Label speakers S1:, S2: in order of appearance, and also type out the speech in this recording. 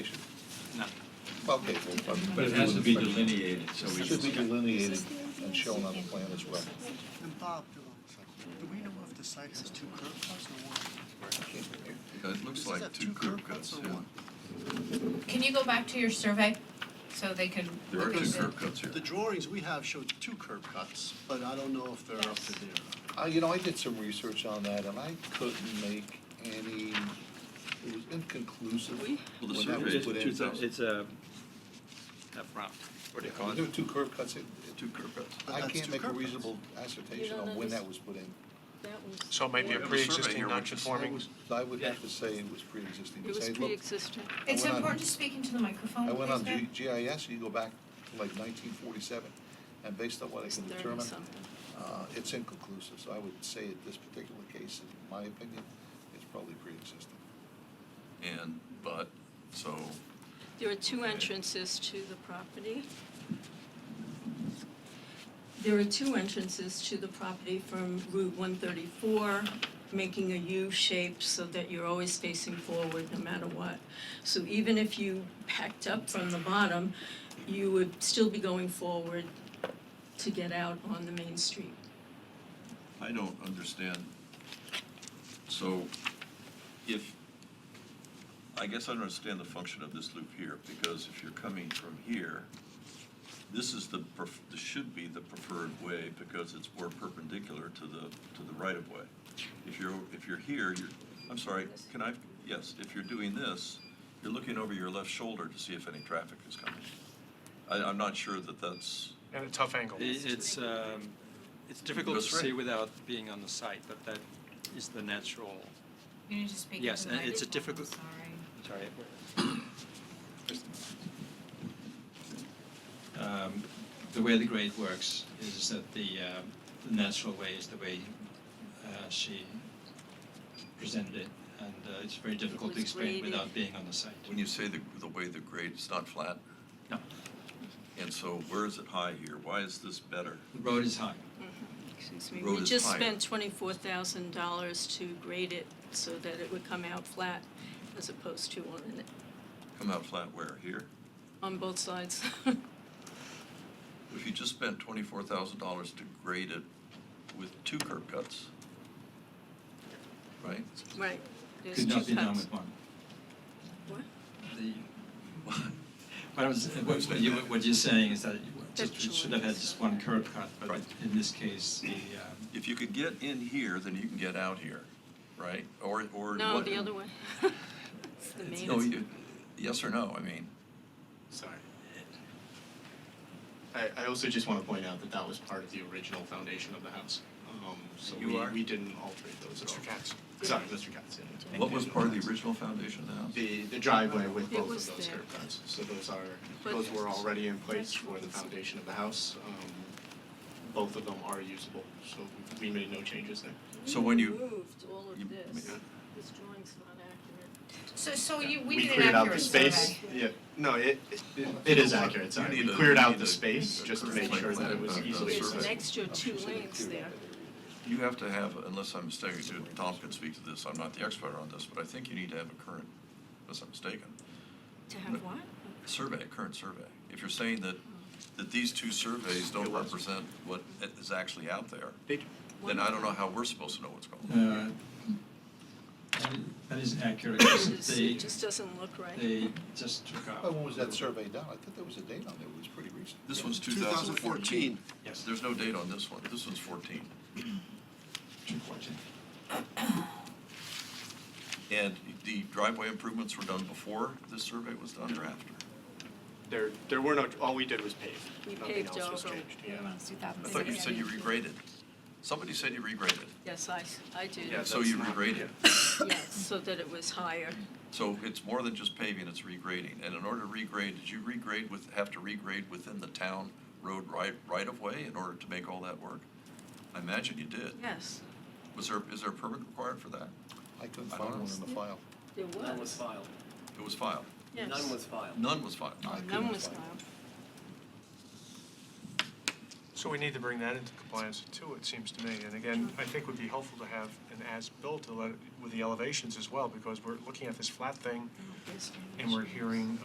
S1: No.
S2: Okay, well,
S3: But it has to be delineated, so
S2: it
S3: we
S2: should be
S3: should.
S2: delineated and shown on the plan as well.
S4: And Bob, do do we know if the site has two curb cuts or one?
S5: It looks
S4: Does it
S5: like
S4: have
S5: two curb cuts,
S4: or
S5: yeah.
S4: one?
S6: Can you go back to your survey so they can?
S5: There are
S6: look at
S5: two
S6: the-
S5: curb cuts here.
S4: The drawings we have show two curb cuts, but I don't know if they're up to there.
S2: I, Uh, you know, I did some research on that and I couldn't make any, it was inconclusive
S5: Well, the
S2: when that
S5: survey
S2: was
S5: is
S2: put in.
S5: 2000.
S1: It's a, up front. What do you call
S2: There
S1: it?
S2: were two curb cuts, it-
S5: Two curb cuts.
S4: But
S2: I
S4: that's
S2: can't
S4: two
S2: make a
S4: curb cuts.
S2: reasonable assertion on when that was put in.
S7: So it might be
S5: We
S7: a
S5: have a survey here,
S7: pre-existing
S5: which is-
S7: non-conforming.
S2: So I would have to say it was pre-existing.
S8: It was
S2: because I looked-
S8: pre-existing.
S2: I
S6: It's
S2: went on-
S6: important to speak into the microphone,
S8: Oh,
S2: I went on
S6: please, ma'am.
S2: G- GIS, you go back to like nineteen forty-seven, and based on what I
S8: It's
S2: can
S8: 30
S2: determine,
S8: something.
S2: uh, it's inconclusive, so I would say in this particular case, in my opinion, it's probably pre-existing.
S5: And, but, so,
S8: There are two entrances to the property. There are two entrances to the property from Route 134, making a U shape so that you're always facing forward no matter what. So even if you packed up from the bottom, you would still be going forward to get out on the main street.
S5: I don't understand. So if, I guess I don't understand the function of this loop here, because if you're coming from here, this is the, pref- this should be the preferred way because it's more perpendicular to the, to the right of way. If you're, if you're here, you're, I'm sorry, can I, yes, if you're doing this, you're looking over your left shoulder to see if any traffic is coming. I, I'm not sure that that's,
S7: At a tough angle.
S1: I- It's, um, it's difficult to
S5: That's right.
S1: say without being on the site, but that is the natural,
S6: You need to speak into the
S1: Yes,
S6: microphone.
S1: and it's a difficult-
S6: Sorry.
S1: sorry. Um, The way the grade works is that the, uh, the natural way is the way uh, she presented it, and uh, it's very difficult to
S8: was
S1: explain
S8: graded.
S1: without being on the site.
S5: when you say the, the way the grade, it's not flat,
S1: No,
S5: and so where is it high here? Why is this better?
S1: the road is high.
S8: Excuse me,
S5: Road
S8: we
S5: is
S8: just
S5: higher.
S8: spent twenty-four thousand dollars to grade it so that it would come out flat as opposed to on, an-
S5: Come out flat where? Here?
S8: on both sides.
S5: If you just spent twenty-four thousand dollars to grade it with two curb cuts, right?
S8: Right, there's two
S1: Could not
S8: cuts.
S1: be done with one.
S8: What?
S1: The, what I was, what what you, what you're saying is that it just
S8: That's
S1: it should have had just one curb cut, but
S5: Right.
S1: in this case, the, um,
S5: If you could get in here, then you can get out here, right? Or, or.
S8: No,
S5: what-
S8: the other way. It's the main.
S5: No, you, yes or no, I mean,
S9: Sorry. I, I also just want to point out that that was part of the original foundation of the house. Um, So
S5: You
S9: we,
S5: are?
S9: we didn't alter those at all.
S7: Mr. Katz.
S9: Sorry, Mr. Katz, yeah.
S5: what was part of the original foundation of the house?
S9: The, the driveway with
S8: It
S9: both
S8: was
S9: of those
S8: there.
S9: curb cuts. So those are,
S8: But-
S9: those were already in place
S8: That's
S9: for the
S8: what-
S9: foundation of the house. Um, Both of them are usable, so we we made no changes there.
S5: So when you-
S8: Moved all
S5: you-
S8: of this,
S9: yeah.
S8: this drawing's not accurate.
S6: So, so you, we
S9: We
S6: did an
S9: cleared out the
S6: accurate
S9: space.
S6: survey.
S9: Yeah, no, it, it- it is accurate, sorry.
S5: need
S9: We
S5: a-
S9: cleared
S5: you
S9: out
S5: need
S9: the
S5: a-
S9: space
S5: a
S9: just to
S5: curved
S9: make
S5: plate
S9: sure that it
S5: plan
S9: was
S5: of the
S9: easily
S5: survey.
S8: There's
S9: accessible.
S8: an
S2: Oh,
S8: extra two links there.
S5: You have to have, unless I'm mistaken, Tom can speak to this, I'm not the expert on this, but I think you need to have a current, unless I'm mistaken,
S8: To have what?
S5: survey, a current survey. If you're saying that, that these two surveys don't represent what is actually out there, then I don't know how we're supposed to know what's going on.
S3: Uh,
S1: that is- that is accurate,
S8: It
S1: because
S8: is-
S1: they,
S8: It just doesn't look right.
S1: they just took out.
S2: But when was that survey done? I thought there was a date on there, it was pretty recent.
S5: This one's 2014.
S1: Yes.
S5: There's no date on this one. This one's 14.
S1: Two fourteen.
S5: And the driveway improvements were done before this survey was done or after?
S9: There, there were no, all we did was pave.
S8: We
S9: Nothing
S8: paved
S9: else was
S8: over.
S9: changed, yeah.
S5: I thought you said you regraded. Somebody said you regraded.
S8: Yes, I, s- I did.
S9: Yeah,
S5: So
S9: that's
S5: you
S9: not-
S5: regraded.
S8: Yes, so that it was higher.
S5: So it's more than just paving, it's regrading. And in order to regrade, did you regrade with, have to regrade within the town road right, right of way in order to make all that work? I imagine you did.
S8: Yes,
S5: Was there, is there a permit required for that?
S2: I couldn't
S5: I don't
S2: find one in the file.
S8: there was.
S10: None was filed.
S5: It was filed.
S8: Yes.
S10: None was filed.
S5: None was filed.
S2: I
S8: None
S2: couldn't
S8: was
S2: find it.
S8: filed.
S7: So we need to bring that into compliance too, it seems to me. And again, I think would be helpful to have an as-built to let- with the elevations as well, because we're looking at this flat thing
S8: Yes,
S7: and we're hearing